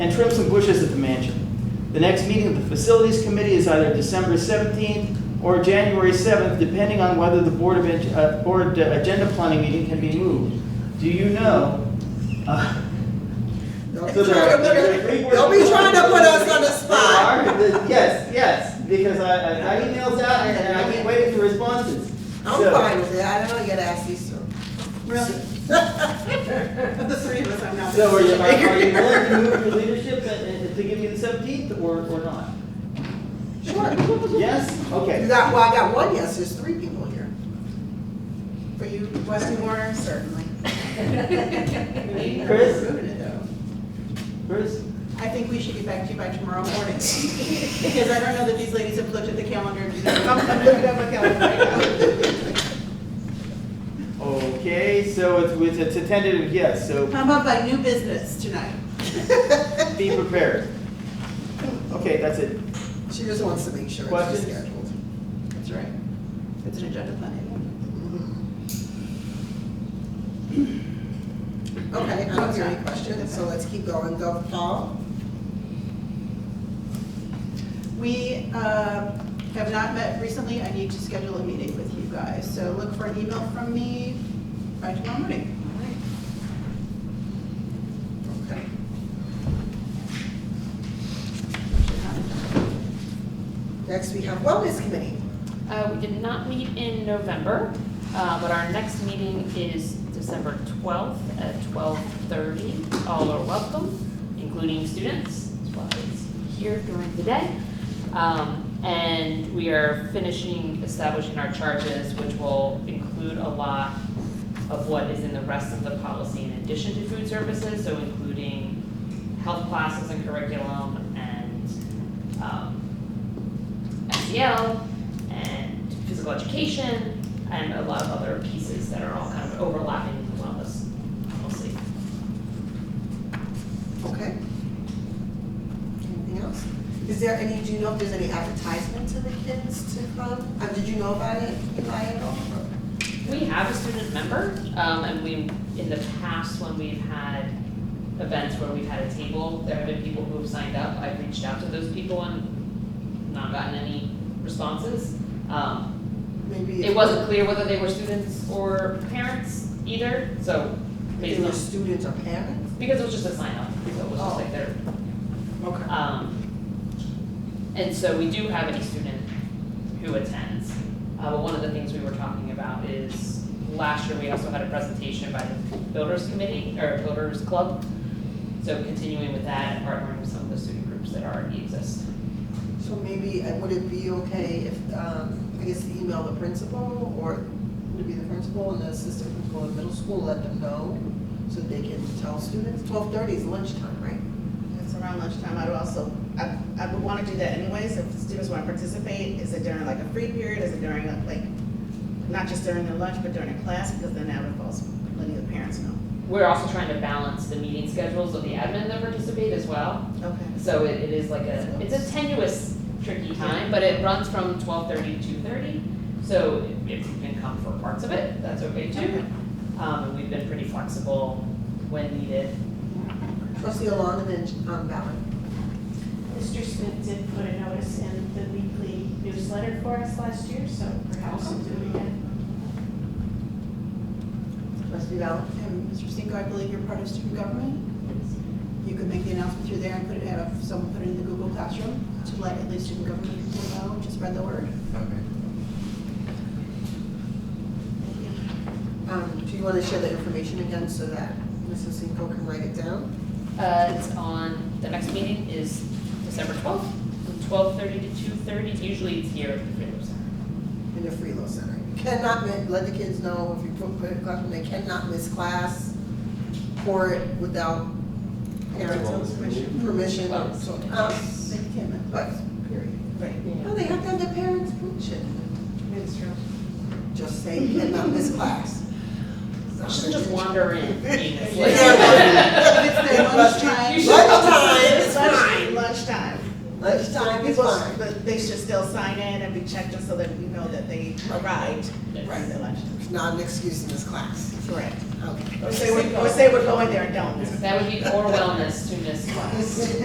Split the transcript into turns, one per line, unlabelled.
and trim some bushes at the mansion. The next meeting of the Facilities Committee is either December 17th or January 7th, depending on whether the Board of, Ed- uh, Board uh, Agenda Planning meeting can be moved. Do you know? uh,
Don't
so
be
there
trying to
are-
put
there are
us-
three board-
don't be trying to put us on the spot.
There are, the- Yes, yes, because I, I I emailed out and- and I keep waiting for responses.
I'm
So-
fine with it, I don't get asked these two.
Really? Of the three of us, I'm not. the
So are you, are are you
decision maker.
willing to move your leadership and- and to give you the seventeenth or, or not?
Sure.
Yes?
You
Okay.
got, well, I got one yes, there's three people here.
For you, Weston Warner, certainly.
Chris?
Moving it, though.
Chris?
I think we should get back to you by tomorrow morning, because I don't know that these ladies have looked at the calendar. and decided, "I'm gonna look at my calendar right
Okay, so it's, with- it's a tentative yes, so
now." How about by new business tonight?
be prepared. Okay, that's it.
She just wants to make sure it's
Questions?
scheduled.
That's right. It's an agenda planning.
Okay, I don't hear any questions, so let's keep going, go Paul.
We uh, have not met recently. I need to schedule a meeting with you guys, so look for an email from me by tomorrow morning.
Okay. Next, we have Wellness Committee.
Uh, we did not meet in November, uh, but our next meeting is December twelfth at twelve thirty. All are welcome, including students, as well as here during the day. Um, and we are finishing establishing our charges, which will include a lot of what is in the rest of the policy in addition to food services, so including health classes and curriculum and, um, SEL E and physical education and a lot of other pieces that are all kind of overlapping in the wellness policy.
Okay. Anything else? Is there any, do you know if there's any advertisement to the kids to come? Uh, did you know about it, Eli, at all?
We have a student member, um, and we, in the past, when we've had events where we've had a table, there have been people who have signed up, I've reached out to those people and not gotten any responses. Um,
Maybe.
it wasn't clear whether they were students or parents either, so
If
based
they were
on,
students or parents?
because it was just a sign up, so it was just like their
Okay.
Um, and so we do have a student who attends. Uh, but one of the things we were talking about is, last year, we also had a presentation by the Builders Committee, or Builders Club. So continuing with that and partnering with some of the student groups that already exist.
So maybe, uh, would it be okay if, um, I guess, email the principal, or would it be the principal and the assistant principal of middle school, let them know, so they can tell students? Twelve thirty is lunchtime, right?
It's around lunchtime, I'd also, I, I would wanna do that anyways, if students wanna participate, is it during like a free period, is it during like, not just during their lunch, but during a class, because then that involves letting the parents know.
We're also trying to balance the meeting schedules of the admin that participate as well.
Okay.
So it, it is like a, it's a tenuous, tricky time, but it runs from twelve thirty to two thirty. So if you can come for parts of it, that's okay too. Um, and we've been pretty flexible when needed.
Trustee Alon and then, um, Valen.
Mr. Smith did put a notice in the weekly newsletter for us last year, so perhaps we'll do it again.
Trustee Valen?
And Mr. Cinco, I believe you're part of student government. You could make the announcement through there and put it, have someone put it in the Google Classroom to let at least student government people know, to spread the word.
Um, do you wanna share the information again so that Mrs. Cinco can write it down?
Uh, it's on, the next meeting is December twelfth, from twelve thirty to two thirty, usually it's here at the Freedom Center.
in the Freelo Center. You Cannot mi- let the kids know if you put, put it classroom, they cannot miss class for it without parents' permission.
Well,
So,
it's-
um,
They can,
but, period.
right.
No, they have to have their parents' permission.
That's true.
Just say cannot miss class.
Shouldn't just wander in aimlessly.
Yeah.
It's their lunchtime.
You should-
Lunchtime is fine.
Lunchtime.
Lunchtime is
People-
fine.
But they should still sign in and be checked in so that we know that they arrived
Yes.
during their lunch.
It's not an excuse in this class.
Correct.
Okay.
Or say, we're- or say we're going there and don't.
That would be or wellness to miss class.